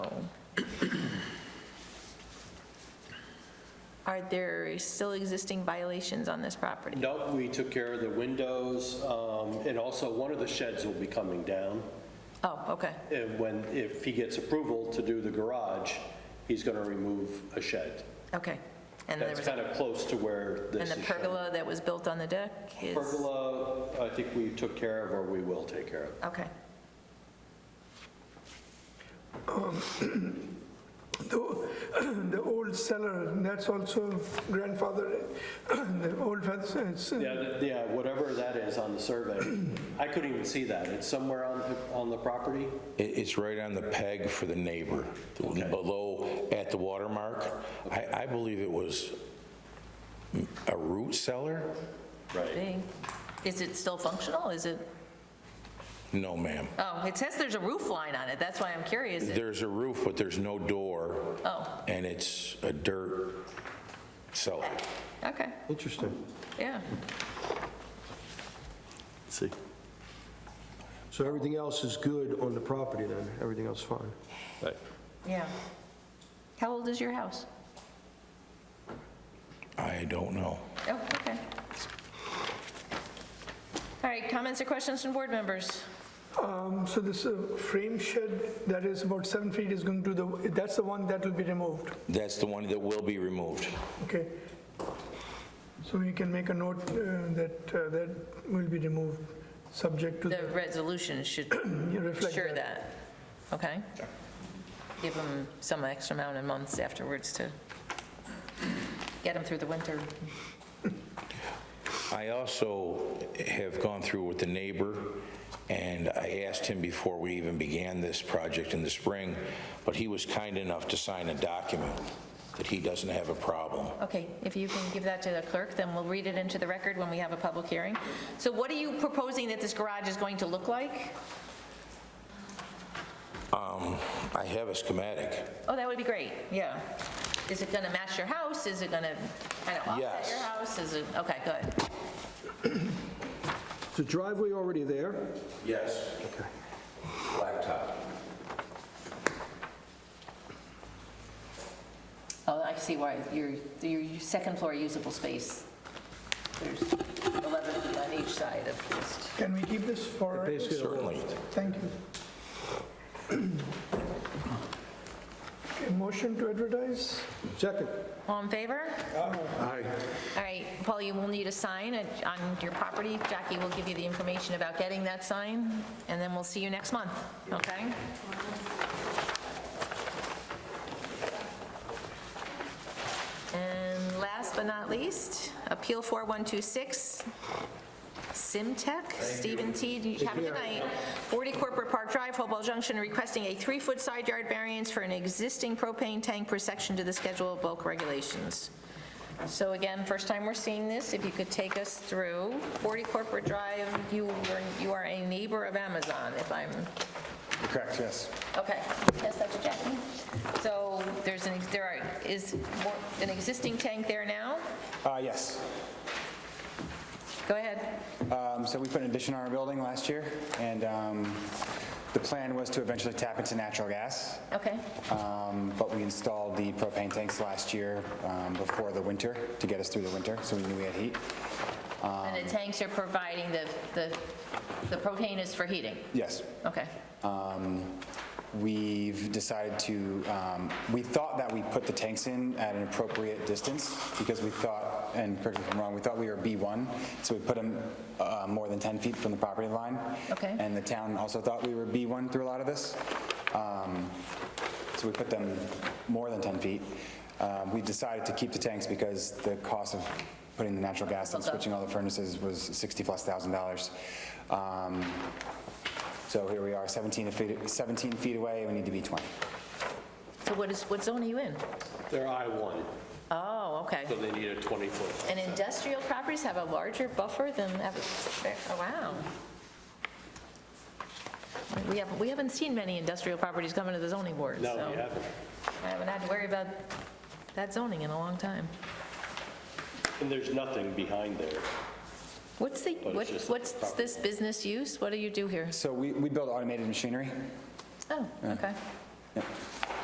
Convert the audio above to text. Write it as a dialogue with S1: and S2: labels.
S1: Um, are there still existing violations on this property?
S2: Nope, we took care of the windows, um, and also one of the sheds will be coming down.
S1: Oh, okay,
S2: And when, if he gets approval to do the garage, he's going to remove a shed.
S1: okay. And there
S2: That's
S1: was, a-
S2: kind of close to where
S1: and
S2: this
S1: the
S2: is shown.
S1: pergola that was built on the deck is?
S2: Pergola, I think we took care of, or we will take care of.
S1: Okay,
S3: The the old cellar, that's also grandfather, the old fence, it's,
S2: Yeah, th- yeah, whatever that is on the survey, I couldn't even see that. It's somewhere on, the- on the property?
S4: It, it's right on the peg for the neighbor, below, at the watermark. I, I believe it was a root cellar?
S2: Right.
S1: Big. Is it still functional? Is it,
S4: No, ma'am.
S1: oh, it says there's a roof line on it, that's why I'm curious.
S4: There's a roof, but there's no door,
S1: Oh,
S4: and it's a dirt cellar.
S1: okay,
S5: Interesting.
S1: yeah.
S5: See. So everything else is good on the property then? Everything else fine?
S1: Yeah. How old is your house?
S4: I don't know.
S1: Oh, okay. All right, comments or questions from board members?
S3: um, so this uh, frame shed that is about seven feet is going to the, that's the one that will be removed,
S4: That's the one that will be removed.
S3: okay? So you can make a note uh, that, uh, that will be removed, subject to,
S1: The resolution should
S3: you reflect
S1: Sure
S3: that.
S1: that, okay? Give them some extra amount of months afterwards to get them through the winter.
S4: I also have gone through with the neighbor, and I asked him before we even began this project in the spring, but he was kind enough to sign a document that he doesn't have a problem.
S1: Okay, if you can give that to the clerk, then we'll read it into the record when we have a public hearing. So what are you proposing that this garage is going to look like?
S4: I have a schematic.
S1: Oh, that would be great, yeah. Is it going to match your house? Is it going to kind of offset your
S4: Yes.
S1: house? Is it, okay, good.
S5: Is the driveway already there?
S4: Yes. Blacktop.
S1: Oh, I see why, your, your second floor usable space, there's 11 feet on each side of this.
S3: Can we keep this for,
S5: Basically,
S4: Certainly.
S3: thank you. Okay, Motion to advertise?
S5: second.
S1: All in favor? All right, Paul, you will need a sign at- on your property. Jackie will give you the information about getting that sign, and then we'll see you next month, okay? And last but not least, Appeal 4126, Simtech, Stephen T. Have a good night. 40 Corporate Park Drive, Hopewell Junction, requesting a three-foot side yard variance for an existing propane tank per section to the schedule of bulk regulations. So again, first time we're seeing this, if you could take us through 40 Corporate Drive, you were, you are a neighbor of Amazon, if I'm,
S6: Correct, yes.
S1: okay. Yes, that's a Jackie. So there's an, there are, is more- an existing tank there now?
S6: Uh, Yes.
S1: Go ahead.
S6: Um, So we put an addition on our building last year, and um, the plan was to eventually tap into natural gas,
S1: Okay,
S6: um, but we installed the propane tanks last year um, before the winter to get us through the winter, so we knew we had heat.
S1: and
S2: Um,
S1: the tanks are providing the, the, the propane is for heating?
S6: Yes.
S1: Okay,
S6: We've decided to, um, we thought that we put the tanks in at an appropriate distance because we thought, and correct me if I'm wrong, we thought we were B1, so we put them uh, more than 10 feet from the property line.
S1: Okay.
S6: And the town also thought we were B1 through a lot of this. Um, So we put them more than 10 feet. Um, We decided to keep the tanks because the cost of putting the natural gas and
S1: Okay.
S6: switching all the furnaces was 60-plus thousand dollars. Um, so here we are, 17 feet, 17 feet away, we need to be 20.
S1: so what is, what zone are you in?
S2: They're I-1,
S1: Oh, okay.
S2: so they need a 20-foot.
S1: And industrial properties have a larger buffer than, average. oh, wow. We haven't, we haven't seen many industrial properties coming to the zoning board, so.
S2: No, you haven't.
S1: I haven't had to worry about that zoning in a long time.
S2: And there's nothing behind there.
S1: What's the,
S2: it's
S1: what-
S2: just the
S1: what's this business use? What do you do here?
S6: So we, we build automated machinery.
S1: Oh, okay.